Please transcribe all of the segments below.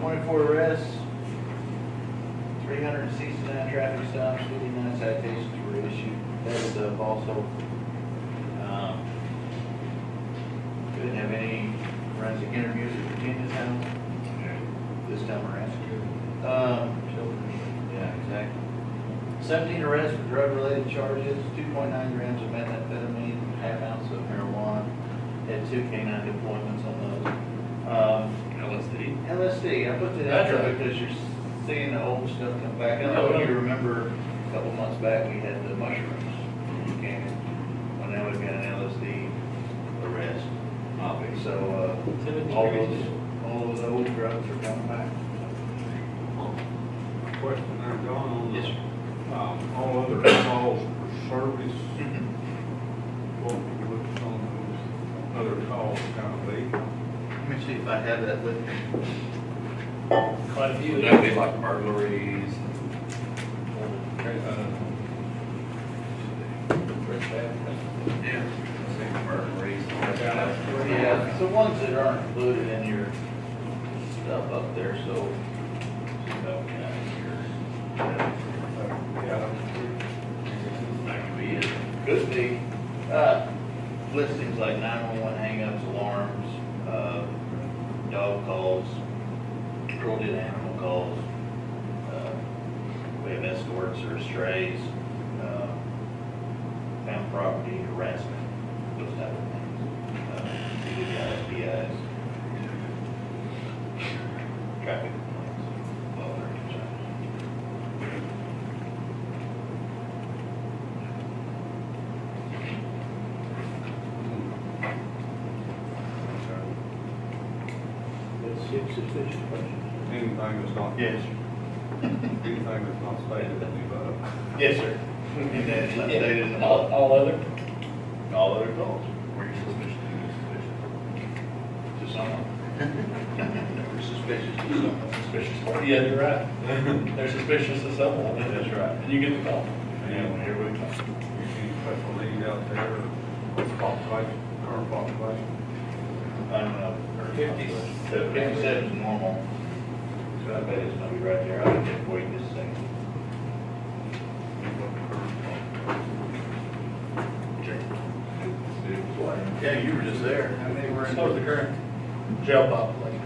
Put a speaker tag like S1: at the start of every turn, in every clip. S1: Twenty-four arrests, three hundred and sixty-nine traffic stops, fifty-nine citations were issued. That was up also. Um, Didn't have any forensic interviews at Virginia's house this time around. Um, yeah, exactly. Seventeen arrests for drug-related charges, two point nine grams of methamphetamine, half ounce of marijuana, had two canine deployments on those. Um,
S2: LSD.
S1: LSD, I put that out there because you're seeing the old stuff come back. I know you remember a couple months back, we had the mushrooms. Okay, Well, now we've got an LSD arrest, obviously, so, uh, all those, all those old drugs are coming back.
S3: Question there, John, on
S1: Yes,
S3: this,
S1: sir.
S3: um, all other calls for service, what we looked on those other calls kind of late.
S1: Let me see if I have that with me.
S4: Quite a few.
S2: That'd be like burglaries. Yeah. Say burglaries. all that stuff.
S1: Yeah, it's the ones that aren't included in your stuff up there, so. so, yeah, your- That could be it. Could be. Uh, Listings like nine-one-one hangups, alarms, uh, dog calls, cruelty to animal calls. uh, We have escorts or strays, uh, found property harassment, those type of things. Uh, DWIs, PIs. Traffic complaints, all their concerns. That's six sufficient questions.
S3: Anything that's not.
S1: Yes.
S3: Anything that's not stated in the, uh,
S1: Yes, sir. And then it's updated in the
S4: All,
S1: law.
S4: all other,
S1: all other calls
S2: Were you suspicious? Were you suspicious?
S1: to someone. We're suspicious to someone.
S4: suspicious, yeah, you're right. They're suspicious of someone,
S1: That's right.
S4: and you get the call.
S1: And here we go.
S3: any special needs out there, population, current population?
S1: I don't know.
S4: Fifty-
S1: Fifty-seven is normal. So I bet it's gonna be right there. I can wait this thing. Yeah, you were just there. How many were
S4: So is the current jail population.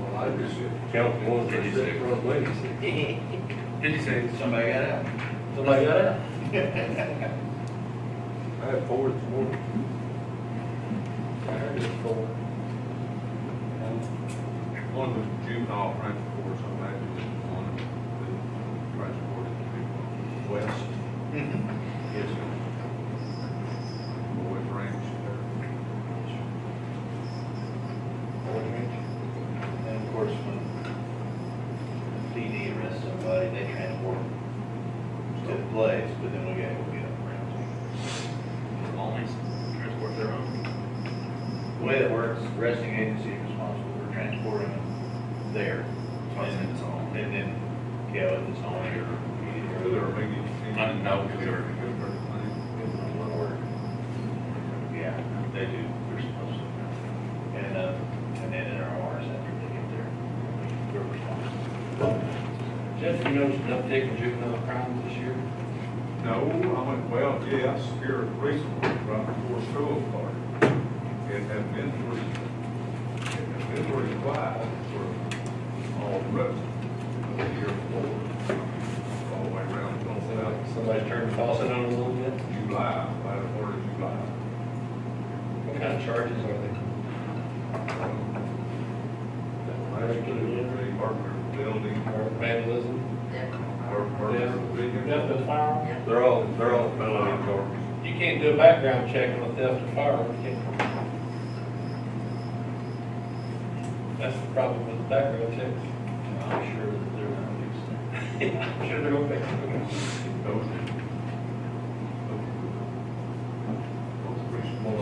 S3: Well, I just,
S5: Count the ones that
S2: Fifty
S5: you
S2: six.
S5: said run away.
S2: Fifty-six.
S1: Somebody got out.
S4: Somebody got it?
S3: I had four this morning.
S4: I heard it before.
S3: One was juvenile transport, so I imagine one that transported people west,
S2: Mm-hmm.
S1: Yes, sir.
S3: boys ranch there.
S1: And of course, when PD arrests somebody, they transport them to the place, but then we gotta go get them around.
S2: Only transport their own.
S1: The way that works, arresting agency is responsible for transporting them there.
S2: That's why I said it's all.
S1: And then, yeah, with its own your
S3: Or
S1: PD.
S3: there were maybe.
S2: I didn't know if they were-
S1: Yeah, they do, they're supposed to. And, uh, and then in our hours after they get there, we're responsible.
S5: Jeff, you noticed an uptick in juvenile crimes this year?
S3: No, I went, well, yes, here recently, right before school started. It had been pretty, it had been pretty quiet for all the rest of the year before. All the way around, till about
S5: Somebody turned the faucet on a little bit?
S3: July, by the third of July.
S5: What kind of charges are they?
S3: Actually, murder of building,
S5: Or vandalism?
S3: mur- murder of
S4: Theft
S3: vehicle.
S4: of firearm?
S5: They're all, they're all
S3: Felony charges.
S5: You can't do a background check on a theft of firearm, can you? That's the problem with the background checks.
S1: I'm sure that they're not fixed.
S5: I'm Sure they're gonna fix it.
S3: Those- Those three small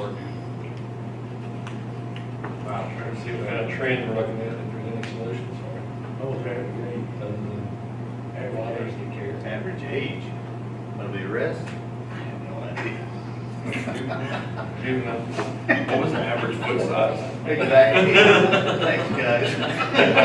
S5: I'm trying to see what kind of trend we're looking at, if there's any solutions for it. Other than
S1: Average
S5: Average
S1: age, average age of the arrest? I have no idea.
S5: Juvenile.
S2: What was the average foot size?
S1: Exactly. Thanks, guys.